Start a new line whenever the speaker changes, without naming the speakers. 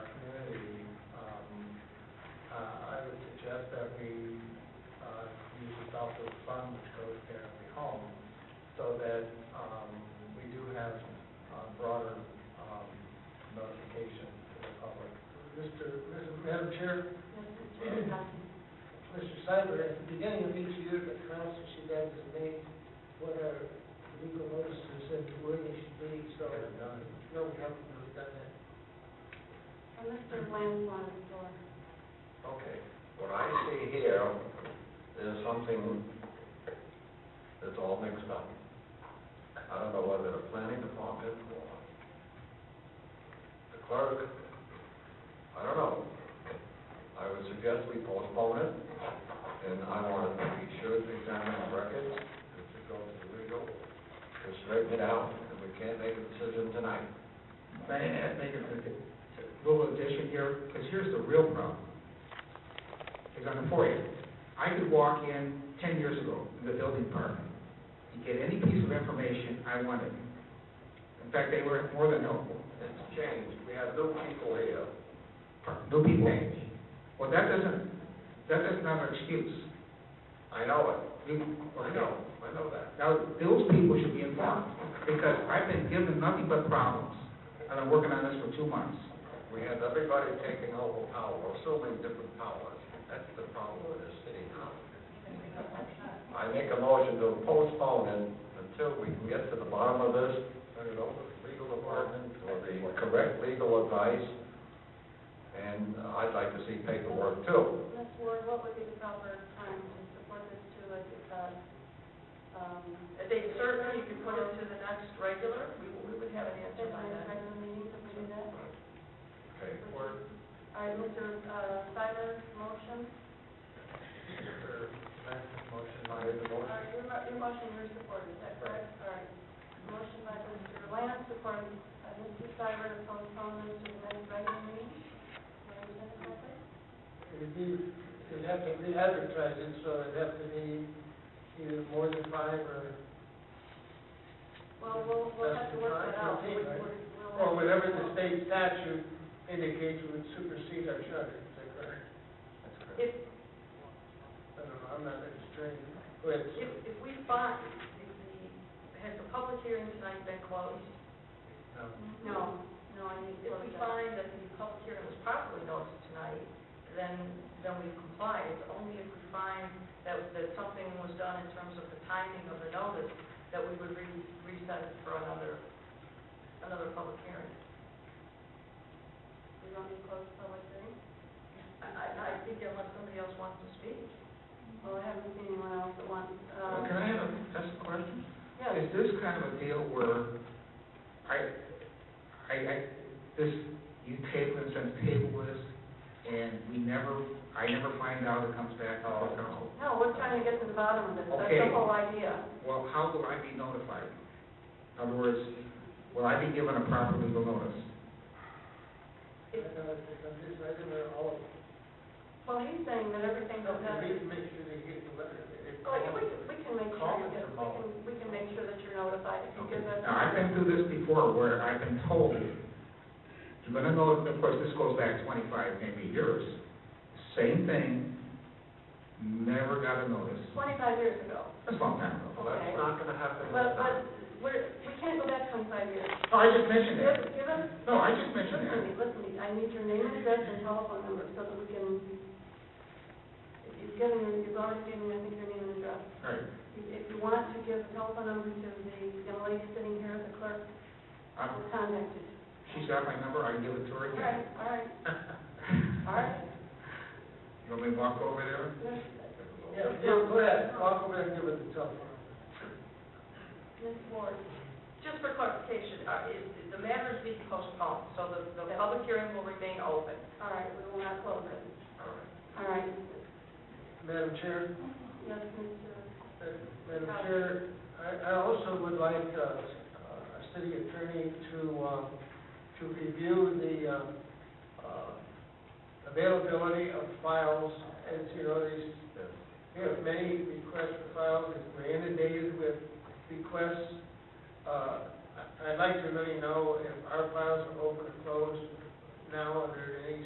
um, uh, um, uh,
Mr. Madam Chair, Mr. Seibert, at the beginning of each year, the council should designate what our legal notices and where they should be, so uh, no, we haven't really done that.
Mr. Bland's on the floor.
Okay, what I see here is something that's all mixed up. I don't know whether the planning department or the clerk, I don't know. I would suggest we postpone it, and I want, we should examine the records, if it goes to legal, to straighten it out, and we can't make a decision tonight.
May I add, make a little addition here, because here's the real problem, is on the foyer. I could walk in ten years ago in the building department and get any piece of information I wanted. In fact, they were more than helpful.
It's changed, we have new people here.
New people. Well, that doesn't, that doesn't have an excuse.
I know it,
You-
I know, I know that.
Now, those people should be informed, because I've been given nothing but problems, and I'm working on this for two months.
We have everybody taking over power, assuming different powers. That's the problem with this city now. I make a motion to postpone it until we can get to the bottom of this, turn it over to the legal department or the correct legal advice. And I'd like to see paperwork too.
Ms. Ward, what would be the proper time to support this to, like, uh, um,
They certainly, you could put it to the next regular, we we would have an
is
answer
there
by
a
then.
regular meeting that we do that?
Okay.
All right, Mr. uh, Seibert's motion,
Motion by the
all
motion.
right, your, mo- your motion, your support, is that correct? All right, motion by Mr. Lamb, supported by Mr. Seibert, to postpone this to the next regular meeting. Do I understand it correctly?
It'd be, it'd have to re-advertise it, so it'd have to be either more than five or,
Well, we'll, we'll have to work that out. We- we're- we'll-
or whatever the state statute indicates would supersede our charter, is that correct?
If,
I don't know, I'm not an attorney, but
if, if we find, if the, has the public hearing tonight been closed?
um,
No, no, I need to
If
work
we
that out.
find that the public hearing was properly noticed tonight, then, then we comply. It's only if we find that, that something was done in terms of the timing of the notice, that we would re- reset it for another, another public hearing.
We don't need closed public hearing.
I, I, I think unless somebody else wants to speak.
Well, I haven't seen anyone else that wants, uh,
Can I have a, that's a question?
yeah,
Is this kind of a deal where I, I, I, this, you table this and table this, and we never, I never find out it comes back to the council?
no, we're trying to get to the bottom of this, that's
Okay.
the whole idea.
Well, how will I be notified? In other words, will I be given a proper legal notice?
I don't know, I'm just, I don't know all of it.
Well, he's saying that everything goes out.
We need to make sure they get the letter. If-
Like, we, can- we can make sure
Call
you
them
get, we
tomorrow.
can, we can make sure that you're notified if you give us.
Now, I've been through this before where I've been told, you're gonna know, of course, this goes back twenty-five, maybe years. Same thing, never got a notice.
Twenty-five years ago,
That's a long time ago.
Well, that's not gonna happen this
but, but,
time.
we're, we can't go back twenty-five years.
No, Oh, I just mentioned
Give,
that.
give us.
No, I just mentioned
Listen to
that.
me, listen to me, I need your name and address and telephone number so that we can, you've given, you've already given, I think, your name and address.
All right.
If you want to give the telephone number to the young lady sitting here, the clerk,
Um,
will contact you.
She's got my number, I can give it to her
All
again.
right, all right, all right.
You want me to walk over there?
Miss-
Yeah, yeah, go ahead, I'll go back and give it the telephone.
Miss Ward,
Just for clarification, uh, is, the matter is being postponed, so the, the public hearing will remain open.
all right, we will not close it.
All right.
All right,
Madam Chair?
yes, Mr.
Uh, Madam Chair, I, I also would like, uh, uh, a city attorney to, uh, to review the, uh, uh, availability of files, as you know, these, uh, we have many requests for files, and we're inundated with requests. Uh, I- I'd like to really know if our files are open or closed now under any